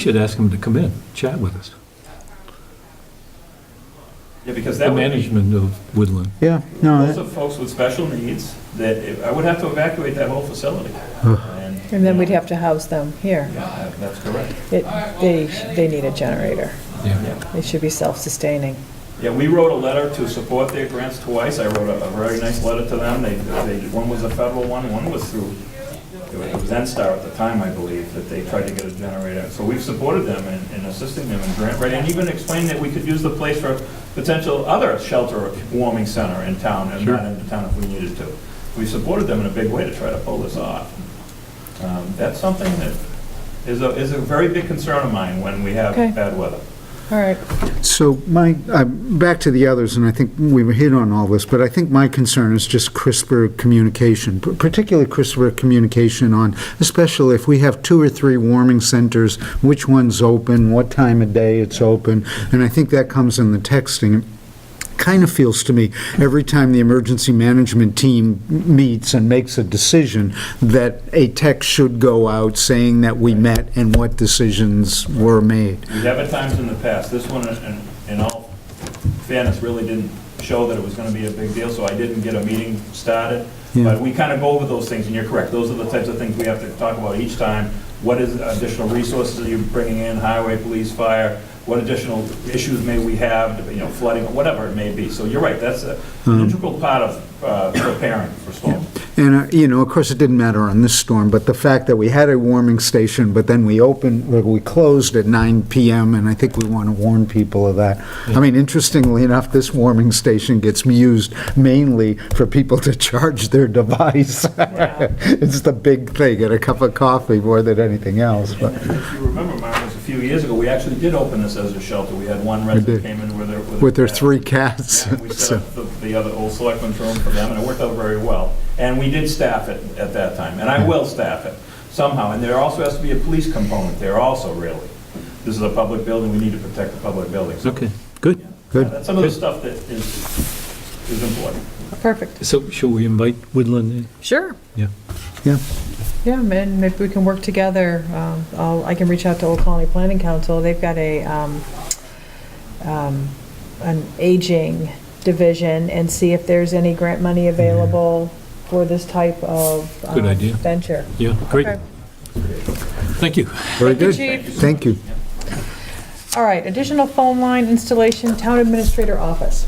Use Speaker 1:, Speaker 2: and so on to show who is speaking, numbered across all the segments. Speaker 1: Should ask him to come in, chat with us.
Speaker 2: Yeah, because
Speaker 1: The
Speaker 2: that would be,
Speaker 1: management of Woodland.
Speaker 3: Yeah, no,
Speaker 2: those
Speaker 3: that-
Speaker 2: are folks with special needs, that, if- I would have to evacuate that whole facility.
Speaker 4: And then we'd have to house them here.
Speaker 2: Yeah, that's correct.
Speaker 4: It, they, they need a generator.
Speaker 1: Yeah.
Speaker 4: It should be self-sustaining.
Speaker 2: Yeah, we wrote a letter to support their grants twice. I wrote a, a very nice letter to them. They, they, one was a federal one, one was through, it was- it was NSTAR at the time, I believe, that they tried to get a generator. So we've supported them in, in assisting them in grant writing, and even explained that we could use the place for potential other shelter or warming center in town, and not in the town if we needed to. We supported them in a big way to try to pull this off. Um, that's something that is a, is a very big concern of mine when we have
Speaker 4: Okay.
Speaker 2: bad weather.
Speaker 4: All right,
Speaker 3: so my, uh, back to the others, and I think we were hit on all this, but I think my concern is just crisper communication, p- particularly crisper communication on, especially if we have two or three warming centers, which one's open, what time of day it's open, and I think that comes in the texting. kind of feels to me, every time the emergency management team meets and makes a decision, that a text should go out saying that we met and what decisions were made.
Speaker 2: We have at times in the past, this one, in- in all fairness, really didn't show that it was going to be a big deal, so I didn't get a meeting started.
Speaker 3: Yeah.
Speaker 2: But we kind of go over those things, and you're correct, those are the types of things we have to talk about each time. What is additional resources are you bringing in, highway, police, fire? What additional issues may we have, you know, flooding, whatever it may be. So you're right, that's a- an
Speaker 3: Um.
Speaker 2: integral part of uh, preparing for storms.
Speaker 3: And, uh, you know, of course, it didn't matter on this storm, but the fact that we had a warming station, but then we opened, or we closed at 9 PM, and I think we want to warn people of that. I mean, interestingly enough, this warming station gets used mainly for people to charge their device. It's the big thing, get a cup of coffee more than anything else, but,
Speaker 2: And If you remember, Myron, it was a few years ago, we actually did open this as a shelter. We had one resident
Speaker 3: did.
Speaker 2: came in with their...
Speaker 3: with their three cats.
Speaker 2: Yeah, We set
Speaker 3: so-
Speaker 2: up the- the other old selectmen's room for them, and it worked out very well. And we did staff it at that time, and I will staff it somehow. And there also has to be a police component there also, really. This is a public building, we need to protect the public building. So,
Speaker 1: Okay, good.
Speaker 2: yeah,
Speaker 3: Good.
Speaker 2: That's some of the stuff that is, is important.
Speaker 4: perfect.
Speaker 1: So shall we invite Woodland in?
Speaker 4: Sure.
Speaker 1: Yeah.
Speaker 3: Yeah.
Speaker 4: Yeah, man, maybe we can work together. Um, I'll, I can reach out to Old Colony Planning Council. They've got a, um, um, an aging division and see if there's any grant money available for this type of.
Speaker 1: Good
Speaker 4: um,
Speaker 1: idea.
Speaker 4: Venture.
Speaker 1: Yeah, great.
Speaker 4: Okay.
Speaker 1: Thank you.
Speaker 3: Very
Speaker 4: Thank you,
Speaker 3: good.
Speaker 4: Chief.
Speaker 3: Thank you.
Speaker 4: All right, additional phone line installation, town administrator office.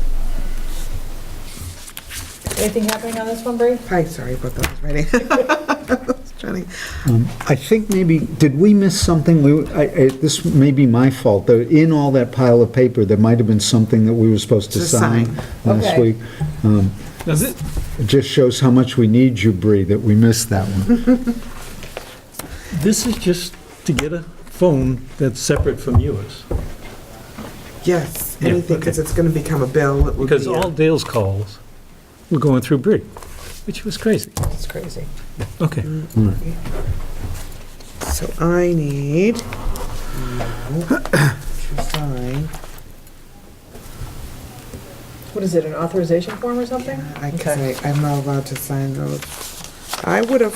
Speaker 4: Anything happening on this one, Bree?
Speaker 5: Hi, sorry about that, I was writing. I was trying to-
Speaker 3: I think maybe, did we miss something? We, I, I- this may be my fault, though, in all that pile of paper, there might have been something that we were supposed to
Speaker 5: To
Speaker 3: sign
Speaker 5: sign.
Speaker 3: last
Speaker 4: Okay.
Speaker 3: week.
Speaker 1: That's it.
Speaker 3: It just shows how much we need you, Bree, that we missed that one.
Speaker 1: This is just to get a phone that's separate from yours.
Speaker 5: Yes,
Speaker 1: Yeah,
Speaker 5: anything, because it's going to become a bill. it will
Speaker 1: Because
Speaker 5: be a-
Speaker 1: all Dale's calls were going through Bree, which was crazy.
Speaker 4: It's crazy.
Speaker 1: Okay.
Speaker 5: So I need you to sign.
Speaker 4: What is it, an authorization form or something?
Speaker 5: I can
Speaker 4: Okay.
Speaker 5: say, I'm not allowed to sign those. I would have,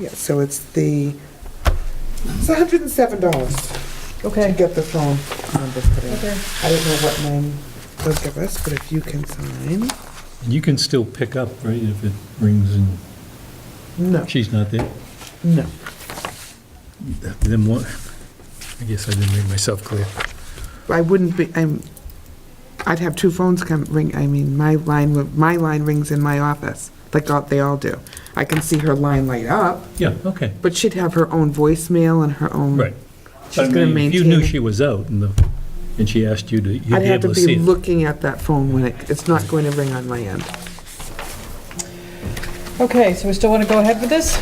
Speaker 5: yeah, so it's the, it's $107 to
Speaker 4: Okay.
Speaker 5: get the phone number put in.
Speaker 4: Okay.
Speaker 5: I don't know what mine will give us, but if you can sign.
Speaker 1: You can still pick up, right, if it rings and
Speaker 5: No,
Speaker 1: she's not there?
Speaker 5: no.
Speaker 1: Then what? I guess I didn't make myself clear.
Speaker 5: I wouldn't be, I'm, I'd have two phones come ring, I mean, my line, would- my line rings in my office, like all- they all do. I can see her line light up,
Speaker 1: Yeah, okay,
Speaker 5: but she'd have her own voicemail and her own.
Speaker 1: right.
Speaker 5: She's
Speaker 1: But I
Speaker 5: gonna
Speaker 1: mean,
Speaker 5: maintain.
Speaker 1: If you knew
Speaker 5: it.
Speaker 1: she was out and, the- and she asked you to, you'd be
Speaker 5: I'd have to
Speaker 1: able to see
Speaker 5: be
Speaker 1: it.
Speaker 5: looking at that phone when it, it's not going to ring on my end.
Speaker 4: Okay, so we still want to go ahead with this?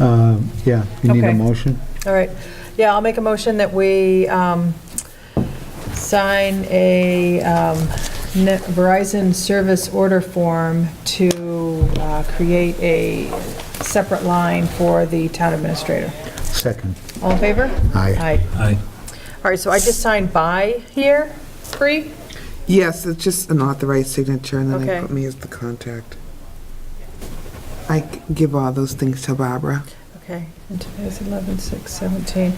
Speaker 3: Um, Yeah, you need a
Speaker 4: Okay.
Speaker 3: motion?
Speaker 4: All right. Yeah, I'll make a motion that we um, sign a um, Net- Verizon service order form to uh, create a separate line for the town administrator.
Speaker 3: Second.
Speaker 4: All in favor?
Speaker 3: Aye.
Speaker 4: Aye.
Speaker 1: Aye.
Speaker 4: All right, so I just signed by here, Bree?
Speaker 5: Yes, it's just an authorized signature, and then
Speaker 4: Okay.
Speaker 5: they put me as the contact. I c- give all those things to Barbara.
Speaker 4: Okay, and today's 11/6/17.